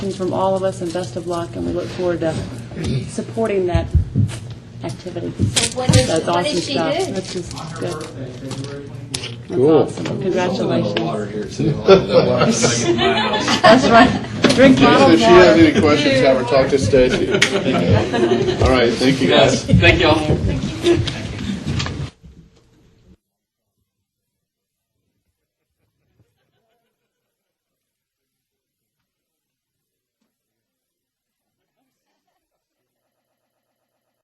And from all of us, and best of luck, and we look forward to supporting that activity. So what did- That's what did awesome she stuff. do? That's just On her good. birthday, February 24th. Cool. That's awesome. Congratulations. here too. Well, That's right. Drink bottled If she has water. any questions, have her talk to Stacy. All right, thank you Yes, guys. thank y'all.